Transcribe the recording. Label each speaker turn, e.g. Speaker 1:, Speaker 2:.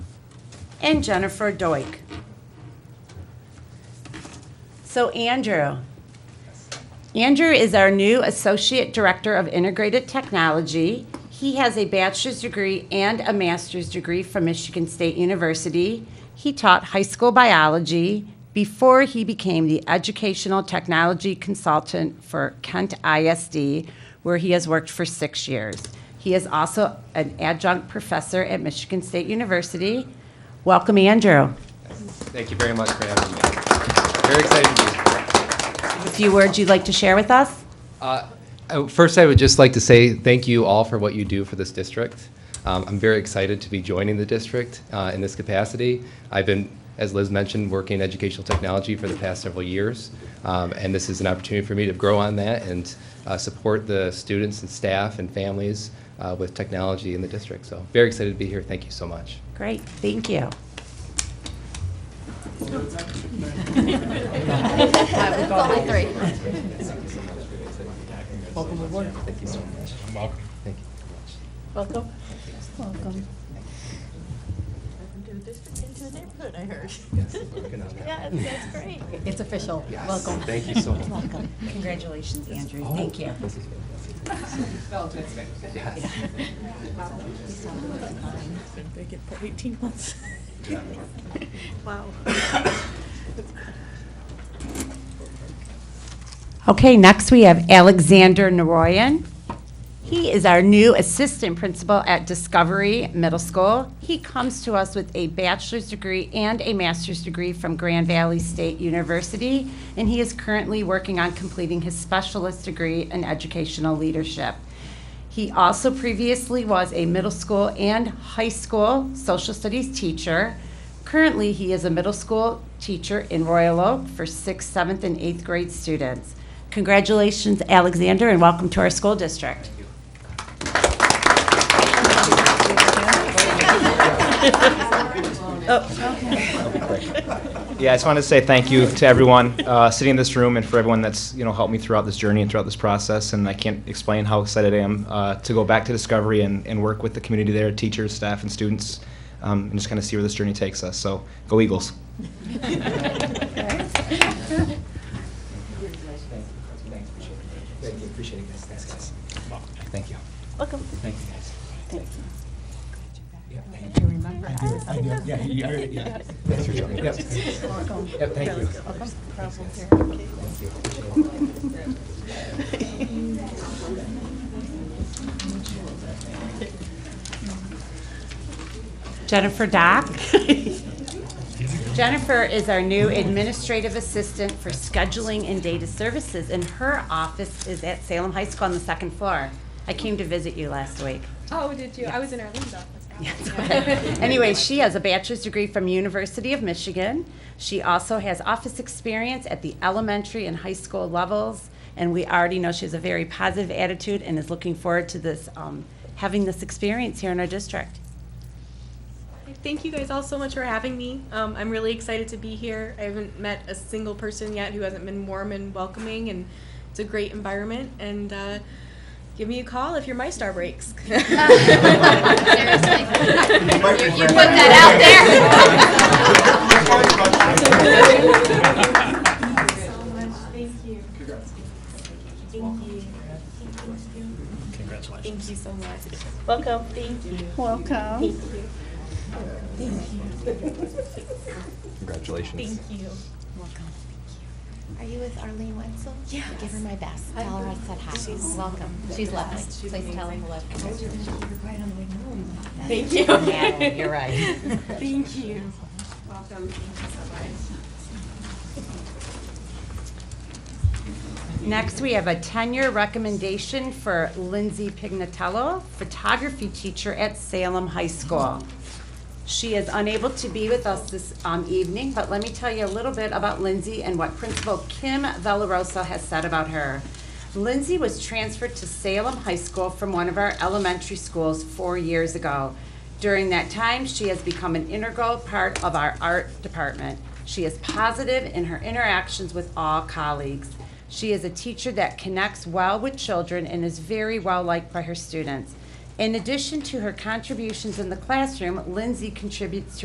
Speaker 1: and Jennifer Doig. So Andrew. Andrew is our new Associate Director of Integrated Technology. He has a bachelor's degree and a master's degree from Michigan State University. He taught high school biology before he became the Educational Technology Consultant for Kent ISD, where he has worked for six years. He is also an adjunct professor at Michigan State University. Welcome, Andrew.
Speaker 2: Thank you very much for having me. Very excited to be here.
Speaker 1: A few words you'd like to share with us?
Speaker 2: Uh, I- First, I would just like to say thank you all for what you do for this district. Um, I'm very excited to be joining the district uh, in this capacity. I've been, as Liz mentioned, working in educational technology for the past several years, Um, and this is an opportunity for me to grow on that and uh, support the students and staff and families uh, with technology in the district. So very excited to be here. Thank you so much.
Speaker 1: Great, thank you.
Speaker 3: It's only three.
Speaker 2: Thank you.
Speaker 4: Welcome. Welcome.
Speaker 5: Welcome to the district and to the neighborhood, I heard.
Speaker 2: working on that.
Speaker 5: Yeah, that's great.
Speaker 4: It's official.
Speaker 2: Yes,
Speaker 4: Welcome.
Speaker 2: thank you so much.
Speaker 4: Welcome.
Speaker 1: Congratulations, Andrew, thank you.
Speaker 2: Yes.
Speaker 5: They get for 18 months. Wow.
Speaker 1: Okay, next we have Alexander Naroyan. He is our new assistant principal at Discovery Middle School. He comes to us with a bachelor's degree and a master's degree from Grand Valley State University, and he is currently working on completing his specialist degree in educational leadership. He also previously was a middle school and high school social studies teacher. Currently, he is a middle school teacher in Royal Oak for sixth, seventh, and eighth grade students. Congratulations, Alexander, and welcome to our school district.
Speaker 6: Yeah, I just wanted to say thank you to everyone uh, sitting in this room and for everyone that's you know helped me throughout this journey and throughout this process. And I can't explain how excited I am uh, to go back to Discovery and, and work with the community there, teachers, staff, and students, um, and just kind of see where this journey takes us. So go Eagles!
Speaker 2: Thank you, appreciate it, guys. Thanks, guys.
Speaker 6: Thank you.
Speaker 5: Welcome.
Speaker 2: Thank you, guys. Thank you. remember us. I do, yeah, you, yeah. Thanks for joining. Yep, thank you.
Speaker 1: Jennifer Dock. Jennifer is our new administrative assistant for scheduling and data services, and her office is at Salem High School on the second floor. I came to visit you last week.
Speaker 7: Oh, did you? I was in Arlene's office.
Speaker 1: Anyway, she has a bachelor's degree from University of Michigan. She also has office experience at the elementary and high school levels, and we already know she has a very positive attitude and is looking forward to this, um, having this experience here in our district.
Speaker 7: Thank you guys all so much for having me. Um, I'm really excited to be here. I haven't met a single person yet who hasn't been warm and welcoming, and it's a great environment. And uh, give me a call if your MyStar breaks.
Speaker 3: Seriously. You- You put that out there.
Speaker 7: Thank you so much. Welcome. Thank you.
Speaker 4: Welcome.
Speaker 2: Congratulations.
Speaker 7: Thank you.
Speaker 3: Are you with Arlene Wenzel? Yeah. Give her my best. Tell her I said hi. Welcome. She's lovely. Please tell her hello.
Speaker 7: Thank you.
Speaker 1: You're right.
Speaker 7: Thank you. Welcome. Thank you so much.
Speaker 1: Next, we have a tenure recommendation for Lindsay Pignatello, photography teacher at Salem High School. She is unable to be with us this um, evening, but let me tell you a little bit about Lindsay and what Principal Kim Villarosa has said about her. Lindsay was transferred to Salem High School from one of our elementary schools four years ago. During that time, she has become an integral part of our art department. She is positive in her interactions with all colleagues. She is a teacher that connects well with children and is very well liked by her students. In addition to her contributions in the classroom, Lindsay contributes to